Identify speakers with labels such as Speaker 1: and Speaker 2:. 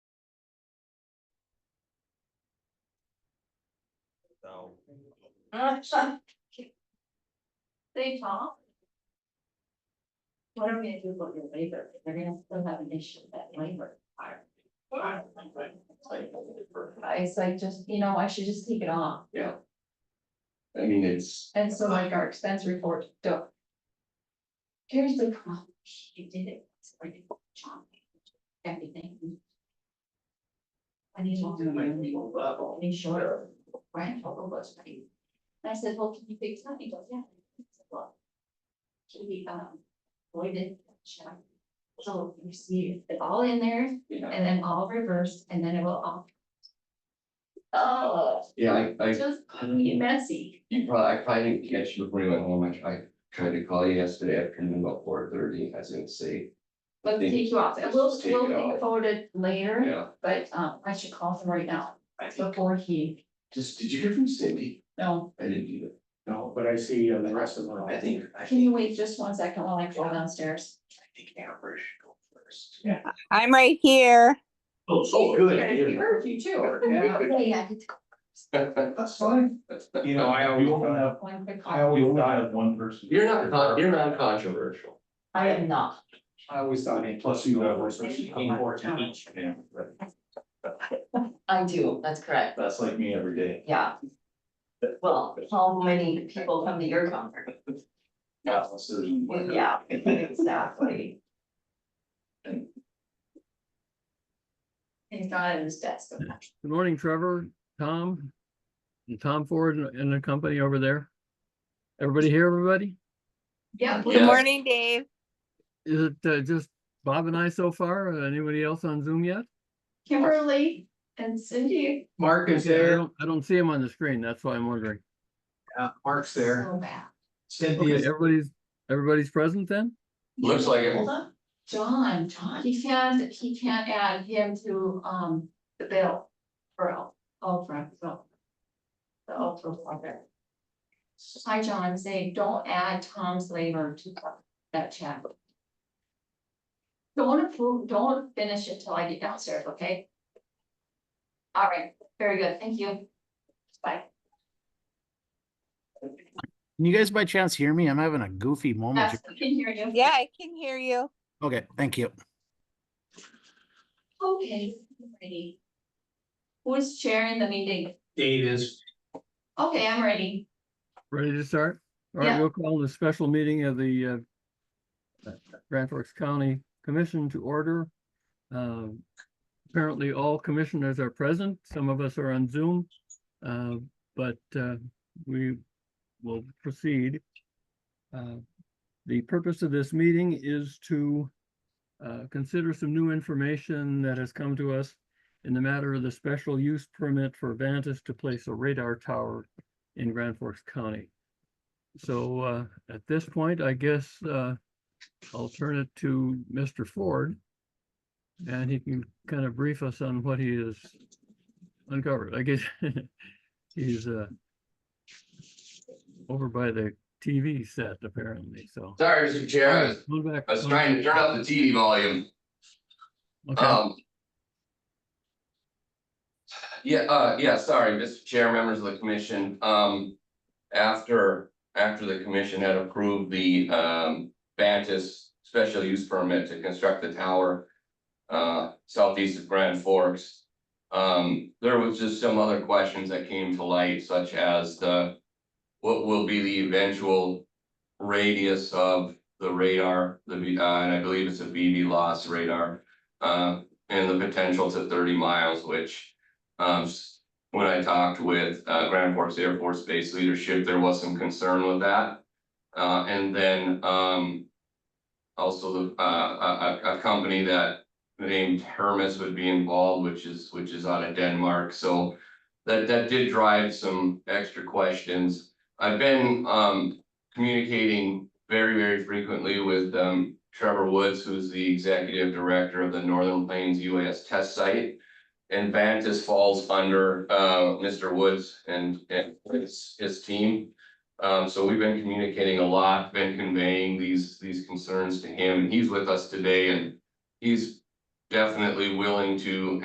Speaker 1: so.
Speaker 2: They talk. What are we gonna do about your labor? They're gonna still have an issue with that labor. part. I was like, just, you know, I should just take it off.
Speaker 3: I mean, it's,
Speaker 2: And so like our expense report, do Here's the problem. You did it. It's already John. Everything. I need to. do my legal level. Be sure. Right, over what's paid. And I said, well, can you fix that? He goes, yeah. I said, "Well, Can we, um, void it? Check. So you see it all in there
Speaker 3: you know,
Speaker 2: and then all reversed and then it will all. Oh,
Speaker 3: yeah, I, I,
Speaker 2: just messy.
Speaker 3: you probably, I probably didn't catch you before you went home. I tried, tried to call you yesterday afternoon about four thirty. I was gonna say,
Speaker 2: Let's
Speaker 3: Think-
Speaker 2: take you off, and we'll,
Speaker 3: Just take
Speaker 2: we'll
Speaker 3: it
Speaker 2: think
Speaker 3: off.
Speaker 2: about it later,
Speaker 3: yeah.
Speaker 2: but, um, I should call him right now,
Speaker 3: I think,
Speaker 2: before he,
Speaker 3: just, did you hear from Cindy?
Speaker 2: no.
Speaker 3: I didn't do
Speaker 1: No, but I see uh, the rest of them.
Speaker 3: that. I think, I
Speaker 2: Can
Speaker 3: think,
Speaker 2: you wait just one second while I go downstairs?
Speaker 3: I think Amber should go first.
Speaker 1: Yeah.
Speaker 4: I'm right here.
Speaker 1: Oh, so good.
Speaker 2: I heard you too. Okay, I did
Speaker 3: That's fine.
Speaker 1: You know, I always, thought-
Speaker 2: one quick
Speaker 1: I
Speaker 2: call.
Speaker 1: always thought of one person.
Speaker 3: You're not, con- you're not controversial.
Speaker 2: I am not.
Speaker 1: I always thought, and plus you got one person, you came for to each. Yeah, right.
Speaker 5: I do, that's correct,
Speaker 1: That's like me every day.
Speaker 5: yeah. Well, how many people come to your conference?
Speaker 1: Yeah, so there's-
Speaker 5: Yeah, exactly.
Speaker 2: He's not at his desk.
Speaker 6: Good morning, Trevor, Tom, and Tom Ford and- and the company over there. Everybody here, everybody?
Speaker 2: Yeah.
Speaker 3: Yeah.
Speaker 4: Good morning, Dave.
Speaker 6: Is it uh, just Bob and I so far? Uh, Anybody else on Zoom yet?
Speaker 2: Kimberly and Cindy.
Speaker 7: Mark is
Speaker 6: Okay, I
Speaker 7: there,
Speaker 6: don't, I don't see him on the screen. That's why I'm wondering.
Speaker 7: uh, Mark's there,
Speaker 2: So bad.
Speaker 6: Okay,
Speaker 7: Cynthia's,
Speaker 6: everybody's, everybody's present then?
Speaker 3: Looks like it.
Speaker 2: Hold on. John, John, he can't, he can't add him to, um, the bill for Al- Ultra, so. The Ultra project. Hi, John, I'm saying, don't add Tom's labor to that chat. Don't approve, don't finish it till I get downstairs, okay? All right, very good, thank you. Bye.
Speaker 8: Can you guys by chance hear me? I'm having a goofy moment.
Speaker 2: Yes,
Speaker 8: here.
Speaker 2: I can hear you.
Speaker 4: Yeah, I can hear you.
Speaker 8: Okay, thank you.
Speaker 2: Okay, ready. Who's chairing the meeting?
Speaker 7: Dave is,
Speaker 2: Okay, I'm ready.
Speaker 6: Ready to start? All right,
Speaker 2: Yeah.
Speaker 6: we'll call the special meeting of the uh, Grand Forks County Commission to order. Um, Apparently, all commissioners are present. Some of us are on Zoom. uh, But uh, we will proceed. Uh, The purpose of this meeting is to uh, consider some new information that has come to us in the matter of the special use permit for Vantas to place a radar tower in Grand Forks County. So uh, at this point, I guess uh, I'll turn it to Mr. Ford. And he can kind of brief us on what he has uncovered. I guess he's uh, over by the TV set apparently, so.
Speaker 3: Sorry, Mr. Chair, I was,
Speaker 6: Move back-
Speaker 3: I was trying to turn up the TV volume.
Speaker 6: Okay.
Speaker 3: Um. Yeah, uh, yeah, sorry, Mr. Chair, members of the commission, um, after, after the commission had approved the, um, Vantas special use permit to construct the tower, uh, southeast of Grand Forks, um, there was just some other questions that came to light, such as the, what will be the eventual radius of the radar, the, V- uh, and I believe it's a VV loss radar, uh, and the potential to thirty miles, which, um, s- when I talked with, uh, Grand Forks Air Force Base leadership, there was some concern with that. Uh, and then, um, also the, uh, a, a, a company that named Hermes would be involved, which is, which is out of Denmark, so that, that did drive some extra questions. I've been, um, communicating very, very frequently with, um, Trevor Woods, who's the executive director of the Northern Plains UAS Test Site. And Vantas falls under uh Mr. Woods and and his his team. Um, so we've been communicating a lot, been conveying these these concerns to him, and he's with us today and he's definitely willing to